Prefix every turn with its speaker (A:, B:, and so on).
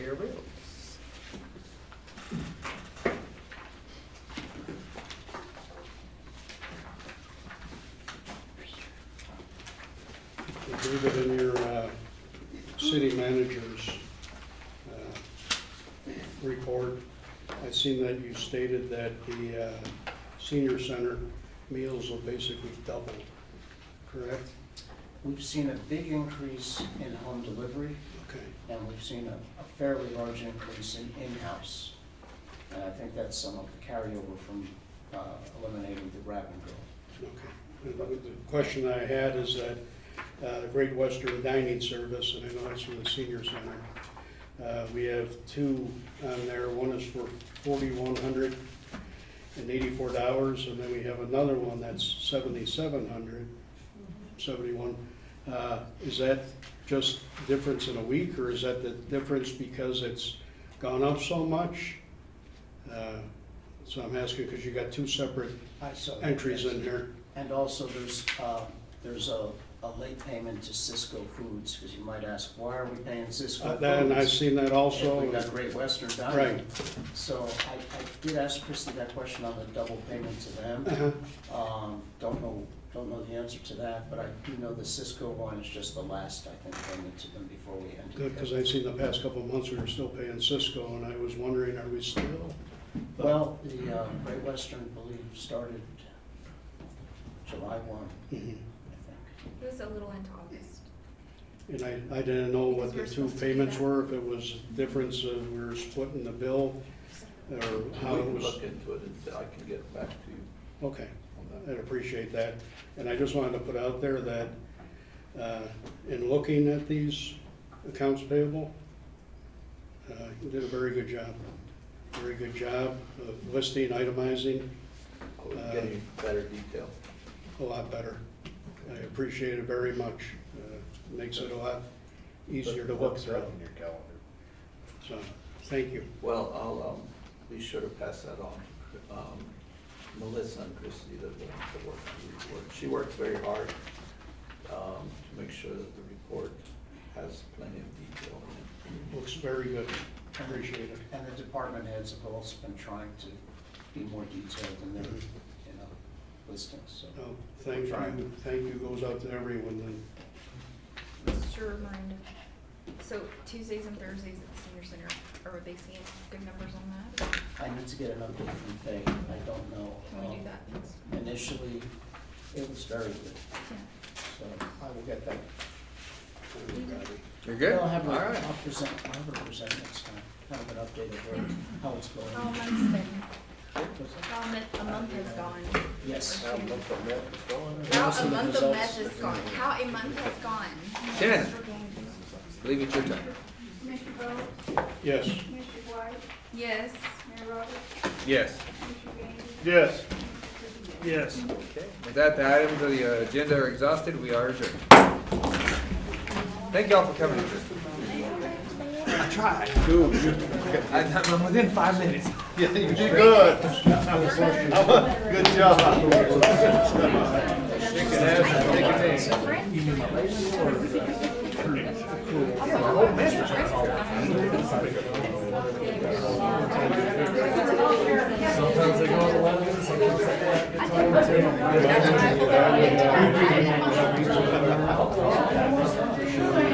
A: Your rules.
B: I believe it in your uh, city manager's uh, report, I've seen that you stated that the uh, senior center meals will basically double, correct?
C: We've seen a big increase in home delivery,
B: Okay,
C: and we've seen a a fairly large increase in in-house. And I think that's some of the carryover from uh, eliminating the grab and go.
B: okay. And The the question I had is that uh, Great Western Dining Service, and I know that's from the senior center, uh, we have two on there, one is for forty-one hundred and eighty-four dollars, and then we have another one that's seventy-seven hundred, seventy-one. Uh, is that just difference in a week, or is that the difference because it's gone up so much? Uh, So I'm asking, because you got two separate
C: I saw that,
B: entries
C: yes.
B: in here.
C: And also, there's, uh, there's a, a late payment to Cisco Foods, because you might ask, why are we paying Cisco
B: Uh,
C: Foods?
B: that- And I've seen that also.
C: If we got Great Western Dining.
B: Right.
C: So I, I did ask Christie that question on the double payment to them.
B: Uh-huh.
C: Um, don't know, don't know the answer to that, but I do know the Cisco one is just the last, I think, payment to them before we ended.
B: Good, because I've seen the past couple of months, we were still paying Cisco, and I was wondering, are we still?
C: Well, the, uh, Great Western, I believe, started July one,
B: Mhm.
C: I think.
D: It was a little into August.
B: And I, I didn't know what the
D: Because we're
B: two
D: supposed to do
B: payments
D: that.
B: were, if it was difference of we were splitting the bill, or
E: We
B: how it
E: can
B: was.
E: look into it and say- I can get back to you
B: Okay,
E: on that.
B: I'd appreciate that. And I just wanted to put out there that, uh, in looking at these accounts payable, uh, you did a very good job. Very good job of listing, itemizing,
E: I will get Oh, you better detail.
B: a lot better. I appreciate it very much. Uh, Makes it a lot easier to look through,
F: your calendar.
B: so, thank you.
E: Well, I'll, um, be sure to pass that on. Um, Melissa and Christie, they're the ones that work on the report. She works very hard, um, to make sure that the report has plenty of detail in it.
B: Looks very good. Appreciate it.
C: And the department heads have also been trying to be more detailed in their, you know, listings, so.
B: Mm-hmm. Oh, Thank you, thank you goes out to everyone then.
D: Sure, Miranda. So Tuesdays and Thursdays at the senior center, are they seeing good numbers on that?
C: I need to get an update from Faye, I don't know.
D: Can we do
C: um,
D: that next?
C: Initially, it was very good,
D: Yeah.
C: so I will get that.
B: everybody.
F: You're good?
C: I'll have, a-
F: All right.
C: I'll present, I'll have a present next time, kind of an update of where, how it's going.
D: How a month's been,
C: Was it-
D: how a month, a month has gone.
C: Yes.
D: How a month
F: From that, it's going.
D: How a month of meth has gone, how a month has gone.
F: Shannon, I believe it's your turn.
G: Mr. Bowles,
B: Yes,
G: Mr. White,
D: Yes,
G: Mayor Roberts,
F: Yes.
G: Mr. Gaines.
H: Yes.
G: Mr. Trivio.
H: Yes.
F: With that, the items of the uh, agenda are exhausted. We are adjourned. Thank y'all for coming. I tried. Dude, you. I'm within five minutes.
H: Yeah, you did good. Good job.
D: that's what I.